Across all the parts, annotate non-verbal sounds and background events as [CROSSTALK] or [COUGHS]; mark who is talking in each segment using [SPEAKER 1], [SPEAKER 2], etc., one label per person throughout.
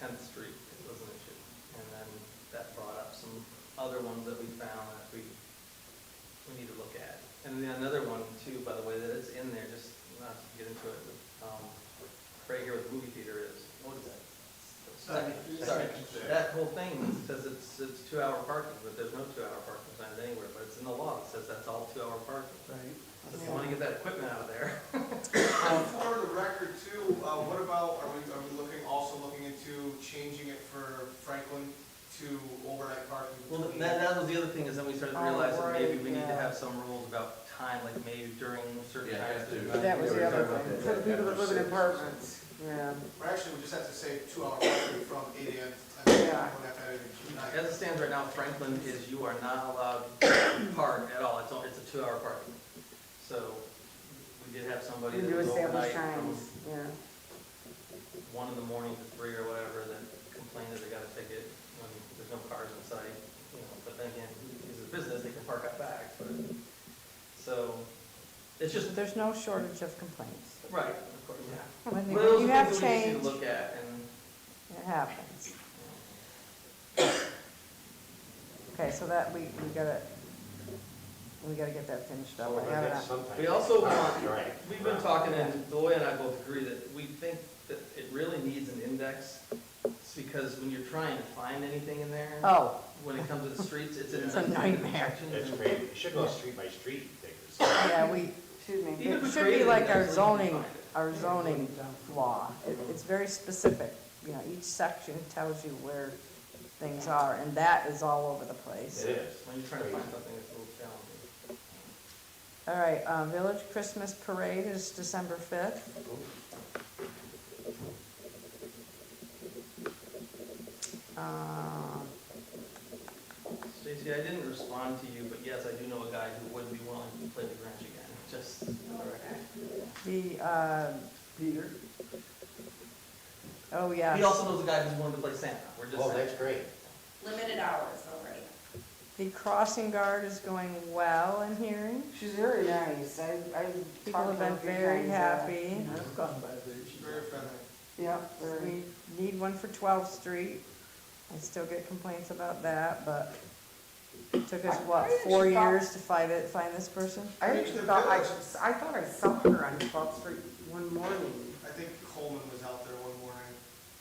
[SPEAKER 1] Tenth Street was an issue. And then that brought up some other ones that we found that we, we need to look at. And then another one too, by the way, that is in there, just not to get into it, um, right here with movie theater is, what is that?
[SPEAKER 2] Second.
[SPEAKER 1] Sorry,
[SPEAKER 2] Second.
[SPEAKER 1] that whole thing says it's, it's two-hour parking, but there's no two-hour parking signs anywhere, but it's in the law, that says that's all two-hour parking. So if you wanna get that equipment out of there.
[SPEAKER 2] Um, For the record too, uh, what about, are we, are we looking, also looking into changing it for Franklin to overnight parking?
[SPEAKER 1] Well,
[SPEAKER 2] between-
[SPEAKER 1] that, that was the other thing, is then we started to
[SPEAKER 3] Oh,
[SPEAKER 1] realize that maybe
[SPEAKER 3] right,
[SPEAKER 1] we need to
[SPEAKER 3] yeah.
[SPEAKER 1] have some rules about time, like maybe during certain
[SPEAKER 4] Yeah, you
[SPEAKER 1] times.
[SPEAKER 4] have to.
[SPEAKER 1] that-
[SPEAKER 4] But
[SPEAKER 3] That was the other
[SPEAKER 4] Yeah,
[SPEAKER 3] thing,
[SPEAKER 4] we
[SPEAKER 3] for
[SPEAKER 4] were
[SPEAKER 3] the
[SPEAKER 4] talking
[SPEAKER 3] people
[SPEAKER 4] about that
[SPEAKER 3] that live in
[SPEAKER 4] after six.
[SPEAKER 3] apartments, yeah.
[SPEAKER 2] Or actually, we just have to say two hour parking [COUGHS] from eight AM to ten
[SPEAKER 3] Yeah.
[SPEAKER 2] AM. We'll have to add it to nine.
[SPEAKER 1] As it stands right now, Franklin is, you are not allowed to park at all, it's, only- it's a two-hour park. So, we did have somebody
[SPEAKER 3] You
[SPEAKER 1] that
[SPEAKER 3] do
[SPEAKER 1] was
[SPEAKER 3] establish
[SPEAKER 1] overnight from
[SPEAKER 3] times, yeah.
[SPEAKER 1] one in the morning to three or whatever, that complained that they got a ticket when there's no cars in sight, you know, but then again, it's a business, they can park out back, but, so, it's just,
[SPEAKER 5] There's no shortage of complaints.
[SPEAKER 1] right, of course, yeah.
[SPEAKER 5] When
[SPEAKER 1] Well, those
[SPEAKER 5] you
[SPEAKER 1] are
[SPEAKER 5] have
[SPEAKER 1] things that we just need to
[SPEAKER 5] change,
[SPEAKER 1] Look at and.
[SPEAKER 5] it happens. Okay, so that, we, we gotta, we gotta get that finished
[SPEAKER 3] Oh,
[SPEAKER 5] up. I have it on-
[SPEAKER 1] We also want, we've been talking, and Deloy and I both agree that we think that it really needs an index. It's because when you're trying to find anything in there,
[SPEAKER 5] Oh,
[SPEAKER 1] when it comes to the streets,
[SPEAKER 5] [LAUGHS]
[SPEAKER 1] it's
[SPEAKER 5] It's a
[SPEAKER 1] a [LAUGHS]
[SPEAKER 5] nightmare.
[SPEAKER 1] nightmare.
[SPEAKER 6] That's great, it should go street by street, I think.
[SPEAKER 5] Oh, yeah, we,
[SPEAKER 3] Excuse me.
[SPEAKER 1] Even
[SPEAKER 5] it
[SPEAKER 1] if
[SPEAKER 5] should
[SPEAKER 1] we
[SPEAKER 5] be
[SPEAKER 1] created
[SPEAKER 5] like
[SPEAKER 1] an
[SPEAKER 5] our
[SPEAKER 1] index, we can
[SPEAKER 5] zoning,
[SPEAKER 1] find it.
[SPEAKER 5] our zoning law. It, it's very specific. You know, each section tells you where things are, and that is all over the place.
[SPEAKER 6] It is.
[SPEAKER 1] When you're trying to find something, it's a little challenging.
[SPEAKER 5] All right, uh, Village Christmas Parade is December fifth. Um,
[SPEAKER 1] Stacy, I didn't respond to you, but yes, I do know a guy who would be willing to play the Grinch again, [LAUGHS] just for the record.
[SPEAKER 5] The, uh,
[SPEAKER 2] Peter?
[SPEAKER 5] oh, yeah.
[SPEAKER 1] He also knows a guy who's willing to play Santa, we're just
[SPEAKER 6] Oh,
[SPEAKER 1] saying.
[SPEAKER 6] that's great.
[SPEAKER 7] limited hours already.
[SPEAKER 5] The crossing guard is going well in hearing.
[SPEAKER 3] She's very nice, I, I
[SPEAKER 5] People have
[SPEAKER 3] talked to her a
[SPEAKER 5] been
[SPEAKER 3] few
[SPEAKER 5] very
[SPEAKER 3] times, uh,
[SPEAKER 5] happy.
[SPEAKER 2] I've gone by there. She's very friendly.
[SPEAKER 3] Yep, very.
[SPEAKER 5] We need one for 12th Street. I still get complaints about that, but it took us,
[SPEAKER 3] I-
[SPEAKER 5] what,
[SPEAKER 3] I
[SPEAKER 5] four
[SPEAKER 3] actually thought-
[SPEAKER 5] years to find it, find this person?
[SPEAKER 3] I actually thought, I, I thought I saw her on 12th Street one morning.
[SPEAKER 2] I think Coleman was out there one morning.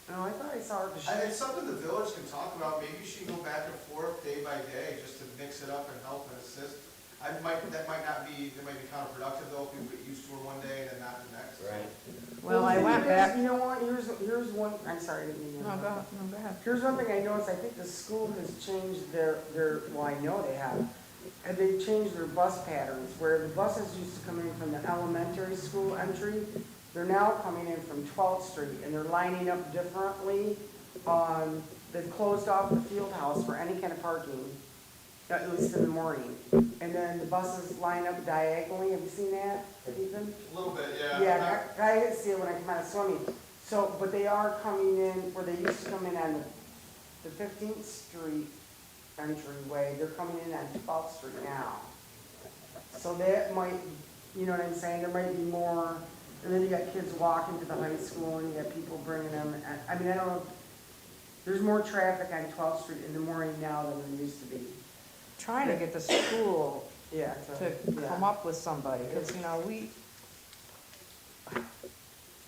[SPEAKER 3] No, I thought I saw her, but she,
[SPEAKER 2] And it's something the village can talk about, maybe she can go back and forth day by day, just to mix it up and help and assist. I might, that might not be, that might be counterproductive though, if we get used to her one day and then not the next.
[SPEAKER 6] Right.
[SPEAKER 5] Well, I
[SPEAKER 3] the
[SPEAKER 5] went
[SPEAKER 3] thing is,
[SPEAKER 5] back,
[SPEAKER 3] You know what, here's, here's one, I'm sorry, I didn't mean to.
[SPEAKER 5] no, go, no, go ahead.
[SPEAKER 3] Here's one thing I noticed, I think the school has changed their, their, well, I know they have, and they've changed their bus patterns, where the buses used to come in from the elementary school entry, they're now coming in from 12th Street, and they're lining up differently. Um, They've closed off the field house for any kind of parking, at least in the morning. And then the buses line up diagonally, have you seen that, Ethan?
[SPEAKER 2] A little bit, yeah.
[SPEAKER 3] Yeah, I, I didn't see it when I came out of swimming. So, but they are coming in, where they used to come in on the Fifteenth Street entryway, they're coming in on Twelfth Street now. So that might, you know what I'm saying, there might be more, and then you got kids walking to the high school, and you got people bringing them, I- I mean, I don't, there's more traffic on Twelfth Street in the morning now than there used to be.
[SPEAKER 5] Trying to get the school
[SPEAKER 3] Yeah.
[SPEAKER 5] to come up with somebody, because, you know, we,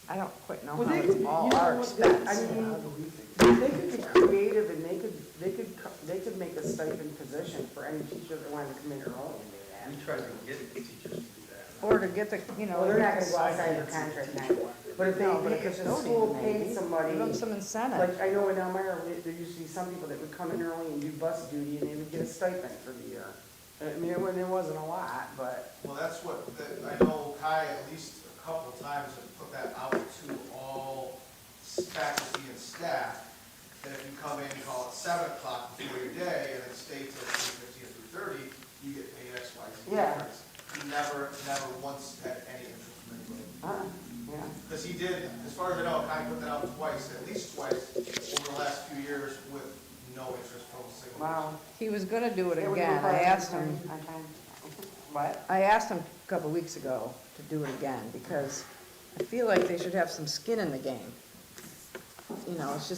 [SPEAKER 5] I don't quite know
[SPEAKER 3] Well,
[SPEAKER 5] how
[SPEAKER 3] they could, you
[SPEAKER 5] it's
[SPEAKER 3] know,
[SPEAKER 5] Uh-huh. all our
[SPEAKER 3] what, they-
[SPEAKER 5] expense.
[SPEAKER 3] I mean, they could be creative and they could, they could, co- they could make a stipend position for any teacher that wanted to come in early and
[SPEAKER 1] We
[SPEAKER 3] do
[SPEAKER 1] tried to get teachers to do that.
[SPEAKER 5] Or to get the, you
[SPEAKER 3] that.
[SPEAKER 5] know.
[SPEAKER 3] Well, they're not gonna go outside their contract now, but if they,
[SPEAKER 5] No, but
[SPEAKER 3] pay-
[SPEAKER 5] a
[SPEAKER 3] if the
[SPEAKER 5] custodian
[SPEAKER 3] school
[SPEAKER 5] maybe.
[SPEAKER 3] paid
[SPEAKER 5] Give
[SPEAKER 3] somebody,
[SPEAKER 5] them some incentive.
[SPEAKER 3] like, I know in Elmira, we- there used to be some people that would come in early and do bus duty and they would get a stipend for the year. I mean, it wasn't, it wasn't a lot, but.
[SPEAKER 2] Well, that's what, that- I know Kai at least a couple times have put that out to all faculty and staff, that if you come in, call it seven o'clock before your day, and then stay till fifteen through thirty, you get paid X, Y, Z
[SPEAKER 3] Yeah.
[SPEAKER 2] difference. He Never, never once had any interest from anybody.
[SPEAKER 3] Uh, yeah.
[SPEAKER 2] Because he did, as far as I know, Kai put that out twice, at least twice, over the last few years with no interest from a single person.
[SPEAKER 3] Wow.
[SPEAKER 5] He was gonna do it
[SPEAKER 3] It would be
[SPEAKER 5] again. I
[SPEAKER 3] fun.
[SPEAKER 5] asked him,
[SPEAKER 3] Okay. What?
[SPEAKER 5] I asked him a couple weeks ago to do it again because I feel like they should have some skin in the game. You know, it's just